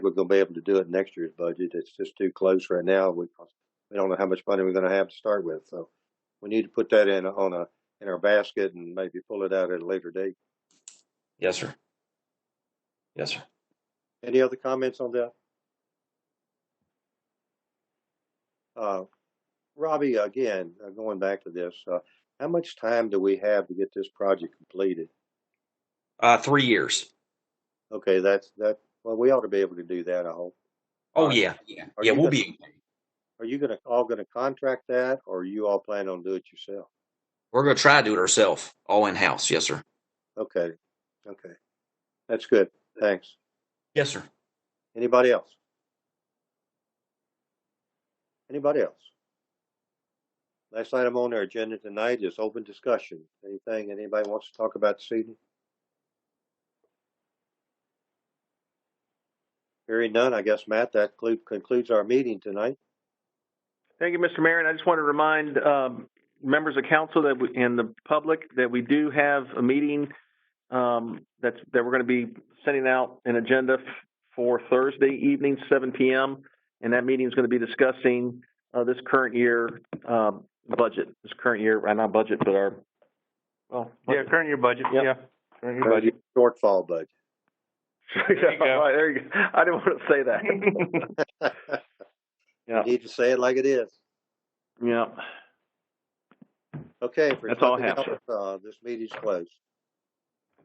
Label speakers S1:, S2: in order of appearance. S1: we're going to be able to do it in next year's budget. It's just too close right now. We we don't know how much money we're going to have to start with, so we need to put that in on a in our basket and maybe pull it out at a later date.
S2: Yes, sir. Yes, sir.
S1: Any other comments on that? Uh, Robbie, again, uh, going back to this, uh, how much time do we have to get this project completed?
S2: Uh, three years.
S1: Okay, that's that. Well, we ought to be able to do that. I hope.
S2: Oh yeah, yeah,
S1: Are
S2: yeah.
S1: you
S2: We'll
S1: gonna-
S2: be.
S1: Are you gonna all gonna contract that, or are you all planning on do it yourself?
S2: We're gonna try to do it ourselves, all in house. Yes, sir.
S1: Okay, okay, that's good. Thanks.
S2: Yes, sir.
S1: Anybody else? Anybody else? Last item on our agenda tonight is open discussion. Anything anybody wants to talk about this evening? Hearing none, I guess, Matt, that clu- concludes our meeting tonight.
S3: Thank you, Mr. Mayor. And I just want to remind um, members of council that we, and the public that we do have a meeting um, that's, that we're going to be sending out an agenda f- for Thursday evening, 7 p.m. And that meeting is going to be discussing uh, this current year um, budget, this current year, uh, not budget, but our, well,
S4: Yeah, current year budget,
S3: Yep.
S4: yeah. Current year budget.
S1: Shortfall budget.
S4: There you go.
S3: All right, there you go. I didn't want to say that.
S1: You Need to say it like it is.
S3: yeah.
S1: Okay. if there's
S3: That's all I
S1: nothing
S3: have,
S1: else, Uh, this meeting's closed.